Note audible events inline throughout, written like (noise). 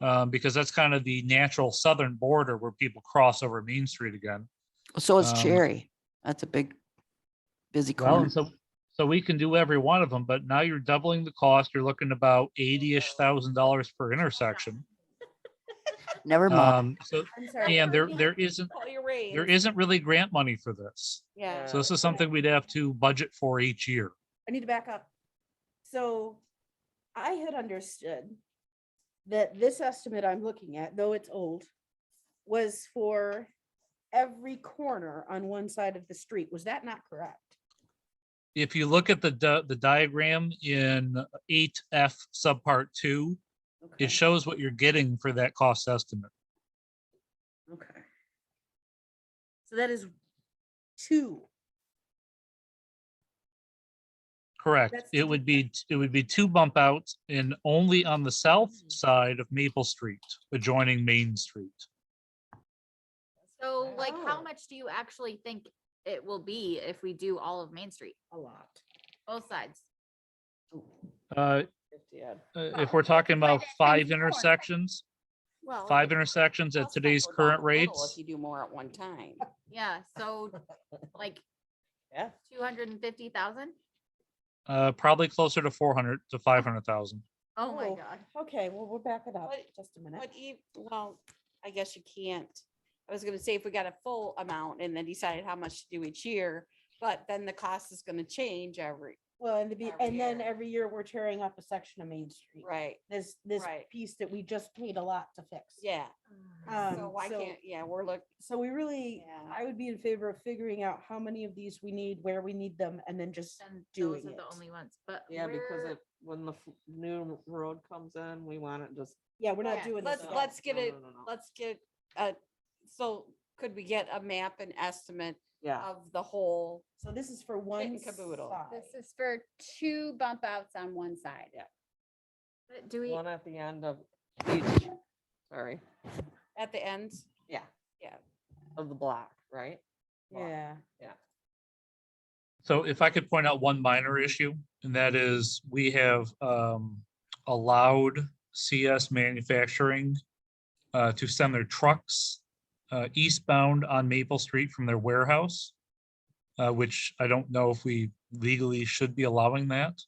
um, because that's kind of the natural southern border where people cross over Main Street again. So is Um, Cherry. That's a big, busy Well, corner. and so, so we can do every one of them, but now you're doubling the cost. You're looking about eighty-ish thousand dollars per intersection. Never mind. Um, so, I'm sorry. and there, there isn't, Call your raise. there isn't really grant money for this. Yeah, So this is something we'd have to budget for each year. I need to back up. So I had understood that this estimate I'm looking at, though it's old, was for every corner on one side of the street. Was that not correct? If you look at the, di- the diagram in eight F subpart two, Okay. it shows what you're getting for that cost estimate. Okay. So that is two. Correct. That's It two would be, t- it would be two bump outs and only on the south side of Maple Street adjoining Main Street. So like, Oh. how much do you actually think it will be if we do all of Main Street, A lot. both sides? Uh, Yeah. uh, Well, if we're talking divide about that Oh, times five four. intersections, Well. five intersections at cost might today's go down current a little rates, you do more at one time. Yeah, so like (laughs) Yeah. two hundred and fifty thousand? uh, probably closer to four hundred to five hundred thousand. Oh my Oh. god. Okay, well, we'll back it up What- just a But minute. e well, I guess you can't. I was gonna say if we got a full amount and then decided how much to do each year, but then the cost is gonna change every, Well, and the, be- every and then year. every year we're tearing up a section of Main Street. right? This, this Right. piece that we just paid a lot to fix. Yeah, so Um, why so- can't, yeah, we're look, So we really, Yeah. I would be in favor of figuring out how many of these we need, where we need them, and then just, And those doing are the it. only ones, but. Yeah, because where- it, when the f- new road comes in, we want it just. yeah, we're not Yeah, doing this. let's- all. let's get No, it- no, no, no. let's get, uh, so could we get a map and estimate Yeah, of the whole? So this is for one caboodle. side. This is for two bump outs on one side. but Do we, one at the end of each, sorry, At the end, yeah. Yeah. Of the block, right? Block. Yeah, So if I could point out one minor issue, and that is we have um, allowed CS Manufacturing uh, to send their trucks uh, eastbound on Maple Street from their warehouse, uh, which I don't know if we legally should be allowing that.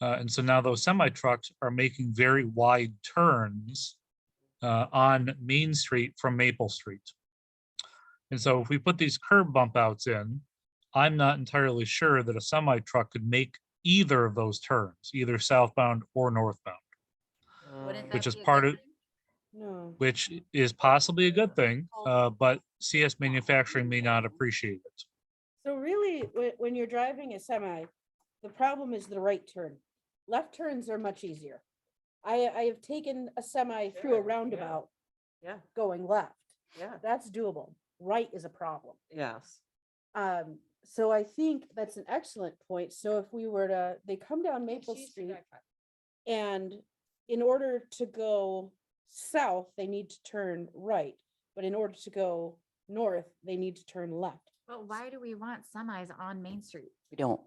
Uh, And so now those semi trucks are making very wide turns uh, on Main Street from Maple Street. And so if we put these curb bump outs in, I'm not entirely sure that a semi truck could make either of those turns, either southbound or northbound, wouldn't Um, that Which is be a good part of- thing? no. which i- is possibly a good thing, uh, but CS manufacturing may not appreciate it. So really, when, when you're driving a semi, the problem is the right turn. Left turns are much easier. I, I have taken a semi through a Sure, yeah. roundabout Yeah, going left. yeah, That's doable. Right is a problem. yes. Um, so I think that's an excellent point. So if we were to, they come down Maple Street and in order to go south, they need to turn right. But in order to go north, they need to turn left. But why do we want semis on Main Street? We don't.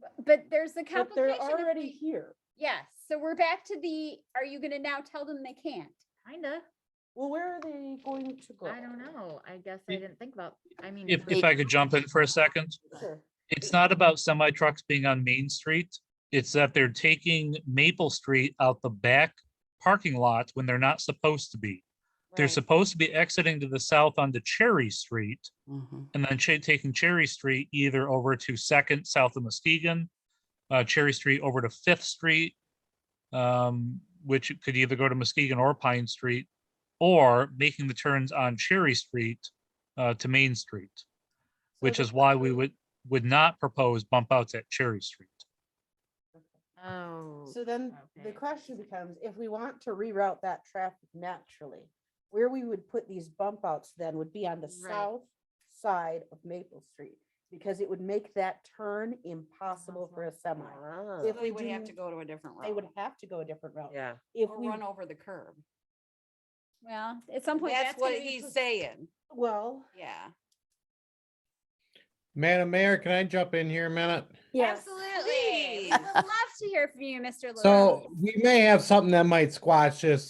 B- But there's the But they're complication. of already the- here. Yes, so we're back to the, are you gonna now tell them they can't? Kinda, Well, where are they going to go? I don't know. I guess I It- didn't think about, I mean. If, for- if I could jump in for a second, Sure. it's not about semi trucks being on Main Street. It's that they're taking Maple Street out the back parking lot when they're not supposed to be. They're right, supposed to be exiting to the south onto Cherry Street Mhm. and then cha- taking Cherry Street either over to Second south of Muskegon, uh, Cherry Street over to Fifth Street, um, which could either go to Muskegon or Pine Street, or making the turns on Cherry Street uh, to Main Street, which is why we would would not propose bump outs at Cherry Street. Oh. So then the okay. question becomes, if we want to reroute that traffic naturally, where we would put these bump outs then would be on the Right. south side of Maple Street. Because it would make that turn impossible for a semi. Ah, If so we they would have to do- go to a different route. They would have to go a different route. Yeah, If Or we, run over the curb. Well, at some point. That's gonna what be he's pres- saying, well, yeah. Madam Mayor, can I jump in here a minute? yes, Absolutely. I'd love to hear from you, Mr. Lewis. So we may have something that might squash this